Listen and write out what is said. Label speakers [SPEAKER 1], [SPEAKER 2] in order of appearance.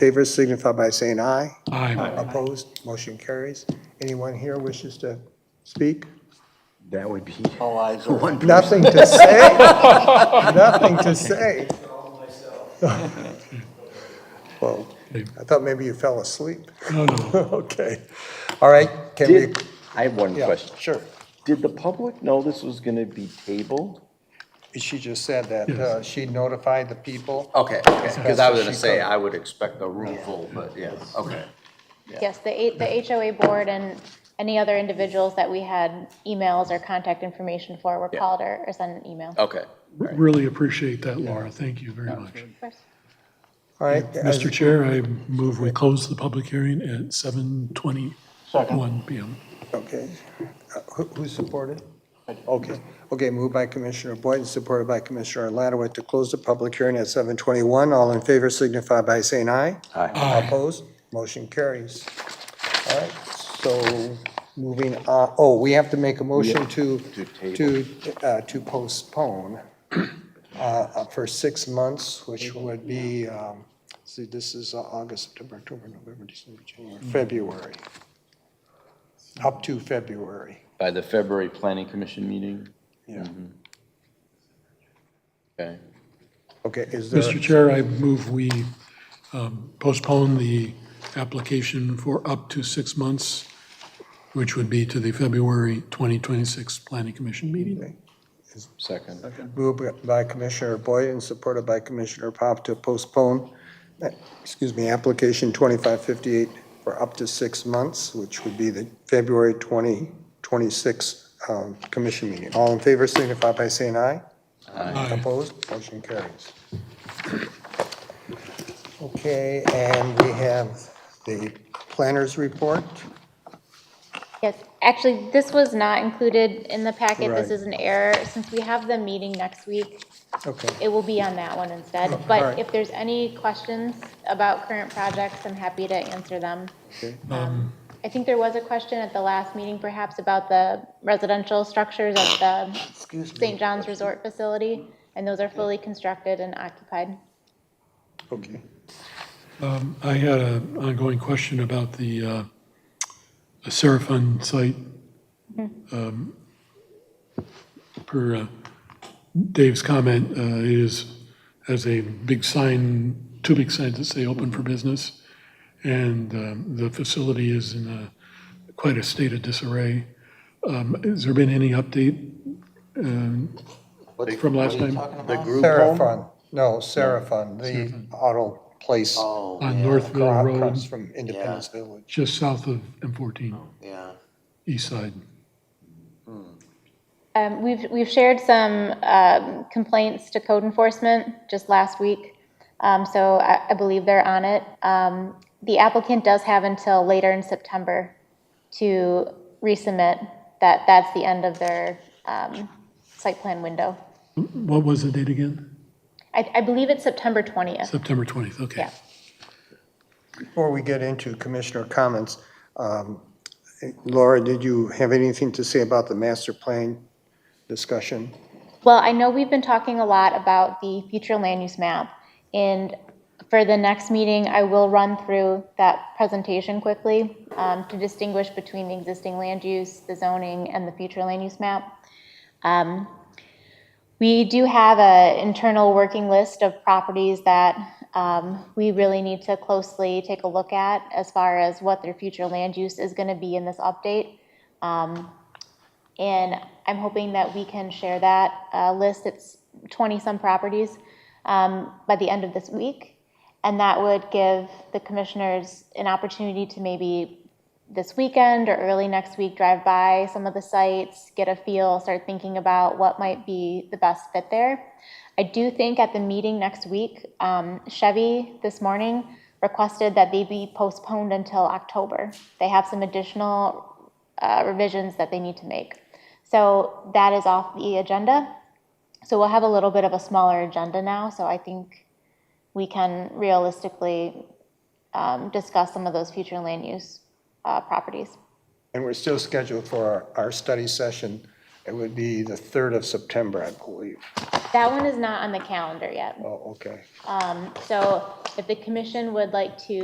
[SPEAKER 1] favor signify by saying aye.
[SPEAKER 2] Aye.
[SPEAKER 1] Opposed, motion carries. Anyone here wishes to speak?
[SPEAKER 3] That would be
[SPEAKER 4] All eyes are one.
[SPEAKER 1] Nothing to say? Nothing to say? Well, I thought maybe you fell asleep.
[SPEAKER 2] No, no.
[SPEAKER 1] Okay. All right, can we?
[SPEAKER 3] Did, I have one
[SPEAKER 1] yeah,
[SPEAKER 3] question.
[SPEAKER 1] Sure.
[SPEAKER 3] Did the public know this was gonna be tabled?
[SPEAKER 1] She just said that uh, she notified the people.
[SPEAKER 3] Oh.
[SPEAKER 4] Okay, okay, because I was
[SPEAKER 1] She
[SPEAKER 4] gonna say,
[SPEAKER 1] covered.
[SPEAKER 4] I would expect a room full, but yeah, okay.
[SPEAKER 5] Yes, the A- the HOA board and any other individuals that we had emails or contact information for were called or or sent an email.
[SPEAKER 4] Okay.
[SPEAKER 2] Really appreciate that, Laura. Thank you very much.
[SPEAKER 5] Of course.
[SPEAKER 1] All right.
[SPEAKER 2] Mr. Chair, I move we close the public hearing at 7:21 PM.
[SPEAKER 1] Okay. Uh, Who who supported? Okay, okay, moved by Commissioner Boyd, supported by Commissioner Lattaway to close the public hearing at 7:21. All in favor signify by saying aye.
[SPEAKER 2] Aye.
[SPEAKER 1] Opposed? Motion carries. All right, so moving, on. oh, we have to make a motion to, to, uh, to postpone uh, uh, for six months, which would be, um, see, this is uh, August, September, October, November, December, January, February. Up to February,
[SPEAKER 3] By the February Planning Commission meeting?
[SPEAKER 1] yeah.
[SPEAKER 3] Okay.
[SPEAKER 1] Okay, is there?
[SPEAKER 2] Mr. Chair, I move we um, postpone the application for up to six months, which would be to the February 2026 Planning Commission meeting.
[SPEAKER 3] Second.
[SPEAKER 1] Moved by Commissioner Boyd and supported by Commissioner Pop to postpone, eh, excuse me, application 2558 for up to six months, which would be the February 2026 um, commission meeting. All in favor signify by saying aye.
[SPEAKER 2] Aye.
[SPEAKER 1] Opposed, motion carries. Okay, and we have the planners report.
[SPEAKER 5] Yes, actually, this was not included in the packet. This
[SPEAKER 1] Right.
[SPEAKER 5] is an error. Since we have the meeting next week,
[SPEAKER 1] Okay,
[SPEAKER 5] it will be on that one instead.
[SPEAKER 1] alright.
[SPEAKER 5] But if there's any questions about current projects, I'm happy to answer them. Um, I think there was a question at the last meeting perhaps about the residential structures at the St. John's Resort Facility, and those are fully constructed and occupied.
[SPEAKER 1] okay.
[SPEAKER 2] Um, I had an ongoing question about the uh, Seraphon site. Um, Per uh, Dave's comment, uh, it is, has a big sign, two big signs that say open for business. And um, the facility is in a, quite a state of disarray. Um, Has there been any update? um, From last time?
[SPEAKER 4] The group home?
[SPEAKER 1] Seraphon, no, Seraphon, the auto place.
[SPEAKER 2] On
[SPEAKER 4] yeah,
[SPEAKER 2] Northville Road,
[SPEAKER 1] Across from Independence Village.
[SPEAKER 2] just south of M14,
[SPEAKER 4] Yeah.
[SPEAKER 2] east side.
[SPEAKER 5] Um, We've, we've shared some um, complaints to code enforcement just last week, um, so I I believe they're on it. Um, The applicant does have until later in September to resubmit, that, that's the end of their um, site plan window.
[SPEAKER 2] What was the date again?
[SPEAKER 5] I, I believe it's September 20th.
[SPEAKER 2] September 20th, okay.
[SPEAKER 5] Yeah.
[SPEAKER 1] Before we get into commissioner comments, um, Laura, did you have anything to say about the master plan discussion?
[SPEAKER 5] Well, I know we've been talking a lot about the future land use map, and for the next meeting, I will run through that presentation quickly um, to distinguish between the existing land use, the zoning, and the future land use map. Um, We do have an internal working list of properties that um, we really need to closely take a look at as far as what their future land use is going to be in this update. And I'm hoping that we can share that uh, list, it's 20-some properties, um, by the end of this week. And that would give the commissioners an opportunity to maybe this weekend or early next week, drive by some of the sites, get a feel, start thinking about what might be the best fit there. I do think at the meeting next week, um, Chevy this morning requested that they be postponed until October. They have some additional uh, revisions that they need to make. So that is off the agenda. So we'll have a little bit of a smaller agenda now. So I think we can realistically um, discuss some of those future land use uh, properties.
[SPEAKER 1] And we're still scheduled for our, our study session It would be the 3rd of September, I believe.
[SPEAKER 5] That one is not on the calendar yet.
[SPEAKER 1] Oh, okay.
[SPEAKER 5] So if the commission would like to